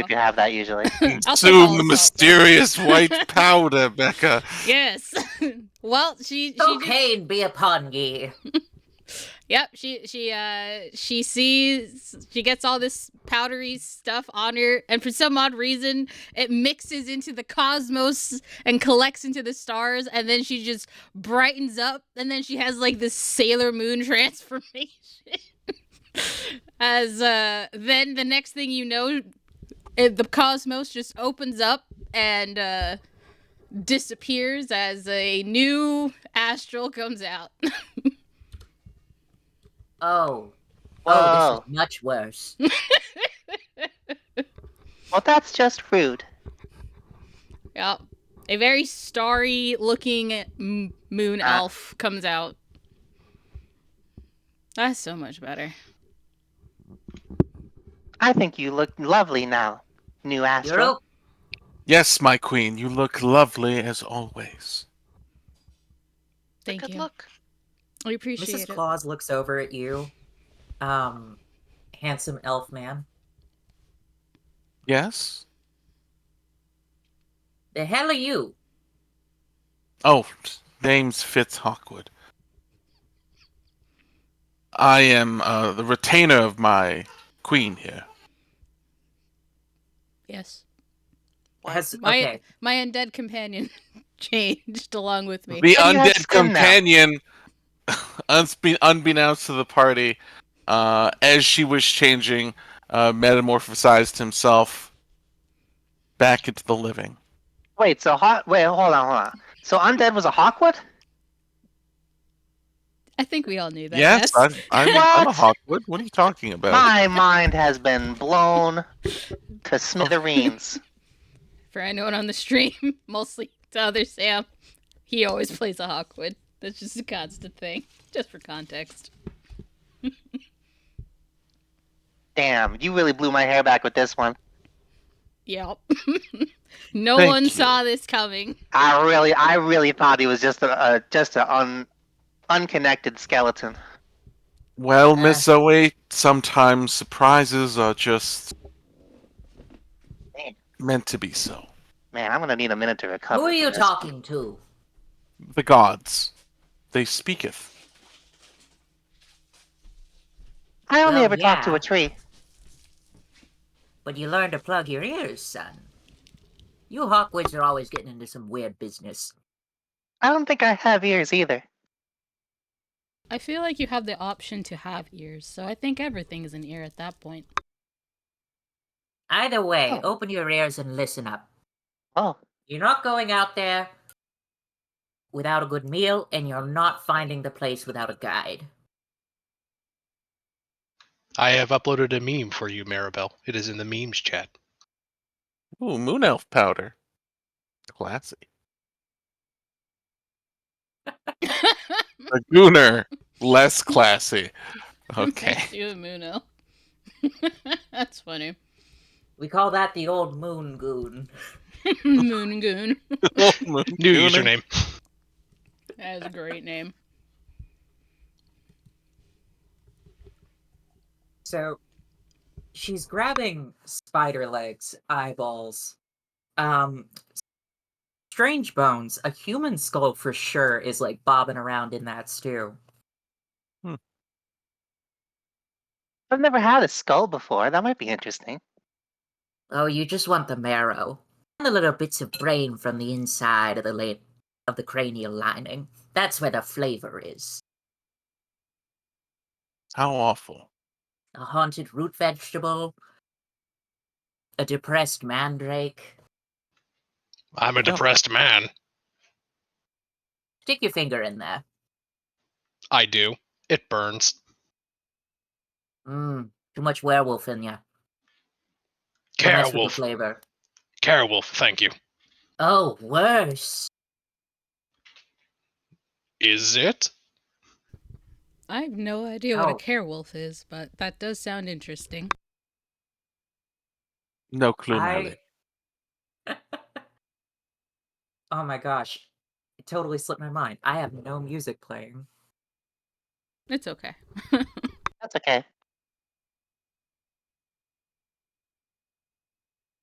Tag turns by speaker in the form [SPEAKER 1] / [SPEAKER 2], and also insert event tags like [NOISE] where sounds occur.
[SPEAKER 1] if you have that
[SPEAKER 2] [LAUGHS]
[SPEAKER 1] usually.
[SPEAKER 3] I'll take all
[SPEAKER 4] Consume the
[SPEAKER 3] salt.
[SPEAKER 4] mysterious white powder, Becca.
[SPEAKER 3] Yes. [LAUGHS] well, she she did-
[SPEAKER 2] Cocaine be upon ye.
[SPEAKER 3] Yep, she she uh she sees she gets all this powdery stuff on her and for some odd reason it mixes into the cosmos and collects into the stars and then she just brightens up and then she has like this Sailor Moon [LAUGHS] transformation. As uh then the next thing you know it, the cosmos just opens up and uh disappears as a new astral comes out.
[SPEAKER 2] Oh.
[SPEAKER 1] Whoa.
[SPEAKER 2] Oh, this is much worse.
[SPEAKER 1] Well, that's just rude.
[SPEAKER 3] Yeah. A very starry looking m- moon
[SPEAKER 1] Ah.
[SPEAKER 3] elf comes out. That's so much better.
[SPEAKER 1] I think you look lovely now, new
[SPEAKER 2] You're
[SPEAKER 1] Astro.
[SPEAKER 2] o-
[SPEAKER 4] Yes, my queen, you look lovely as always.
[SPEAKER 3] Thank
[SPEAKER 1] Good
[SPEAKER 3] you.
[SPEAKER 1] look.
[SPEAKER 3] We appreciate
[SPEAKER 2] Mrs.
[SPEAKER 3] it.
[SPEAKER 2] Claus looks over at you. Um handsome elf man.
[SPEAKER 4] Yes?
[SPEAKER 2] The hell are you?
[SPEAKER 4] Oh, name's Fitz Hawkwood. I am uh, the retainer of my queen here.
[SPEAKER 3] yes.
[SPEAKER 2] Has,
[SPEAKER 3] My
[SPEAKER 2] okay.
[SPEAKER 3] my undead companion [LAUGHS] changed along with me.
[SPEAKER 1] And
[SPEAKER 4] The
[SPEAKER 1] you have
[SPEAKER 4] undead
[SPEAKER 1] skin now.
[SPEAKER 4] companion, [LAUGHS] unspe- unbeknownst to the party, uh, as she was changing, uh, metamorphosized himself back into the living.
[SPEAKER 1] Wait, so hot. Wait, hold on, hold on. So undead was a Hawkwood?
[SPEAKER 3] I think we all knew that.
[SPEAKER 4] yes, I'm, I'm, I'm a
[SPEAKER 1] What?
[SPEAKER 4] Hawkwood. What are you talking about?
[SPEAKER 1] My mind has
[SPEAKER 2] [LAUGHS]
[SPEAKER 1] been blown to smithereens.
[SPEAKER 3] [LAUGHS] For anyone on the stream, [LAUGHS] mostly to other Sam, he always plays a Hawkwood. That's just a constant thing, just for context.
[SPEAKER 1] Damn, you really blew my hair back with this one.
[SPEAKER 3] Yep. [LAUGHS] no
[SPEAKER 4] Thank
[SPEAKER 3] one
[SPEAKER 4] you.
[SPEAKER 3] saw this coming.
[SPEAKER 1] I really, I really thought he was just a, a just a un, unconnected skeleton.
[SPEAKER 4] Well, Miss Zoe, sometimes surprises are just
[SPEAKER 1] Man.
[SPEAKER 4] meant to be so.
[SPEAKER 1] Man, I'm gonna need a minute to recover.
[SPEAKER 2] Who are
[SPEAKER 1] from
[SPEAKER 2] you
[SPEAKER 1] this.
[SPEAKER 2] talking to?
[SPEAKER 4] The gods, they speaketh.
[SPEAKER 1] I only
[SPEAKER 2] Well,
[SPEAKER 1] ever talk to
[SPEAKER 2] yeah.
[SPEAKER 1] a tree.
[SPEAKER 2] But you learn to plug your ears, son. You Hawkwoods are always getting into some weird business.
[SPEAKER 1] I don't think I have ears either.
[SPEAKER 3] I feel like you have the option to have ears, so I think everything is an ear at that [LAUGHS] point.
[SPEAKER 2] Either way,
[SPEAKER 1] Oh.
[SPEAKER 2] open your ears and listen up.
[SPEAKER 1] Oh,
[SPEAKER 2] You're not going out there without a good meal, and you're not finding the place without a guide.
[SPEAKER 5] I have uploaded a meme for you, Maribel. It is in the memes chat.
[SPEAKER 4] Ooh, moon elf powder. Classy. The gooner, less classy. [LAUGHS] Okay.
[SPEAKER 3] Thanks to you, Muno. [LAUGHS] That's funny.
[SPEAKER 2] We call that the old moon goon.
[SPEAKER 3] [LAUGHS] Moon Goon.
[SPEAKER 4] Moon
[SPEAKER 5] New
[SPEAKER 4] gooner.
[SPEAKER 5] username.
[SPEAKER 3] That is a great name.
[SPEAKER 2] So she's grabbing spider legs, eyeballs. Um strange bones, a human skull for sure is like bobbing around in that stew.
[SPEAKER 1] I've never had a skull before. That might be interesting.
[SPEAKER 2] Oh, you just want the marrow. And the little bits of brain from the inside of the la- of the cranial lining. That's where the flavor is.
[SPEAKER 4] How awful.
[SPEAKER 2] A haunted root vegetable, a depressed mandrake.
[SPEAKER 5] I'm a depressed man.
[SPEAKER 2] Stick your finger in there.
[SPEAKER 5] I do. It burns.
[SPEAKER 2] Mmm, too much werewolf in ya. Don't mess with the
[SPEAKER 5] Carewolf.
[SPEAKER 2] flavor.
[SPEAKER 5] Carewolf, thank you.
[SPEAKER 2] Oh, worse.
[SPEAKER 5] Is it?
[SPEAKER 3] I have no idea what a
[SPEAKER 2] Oh.
[SPEAKER 3] carewolf is, but that does sound interesting.
[SPEAKER 4] No clue,
[SPEAKER 2] I...
[SPEAKER 4] really.
[SPEAKER 2] [LAUGHS] oh my gosh. It totally slipped my mind. I have no music playing.
[SPEAKER 3] It's okay.
[SPEAKER 1] That's okay.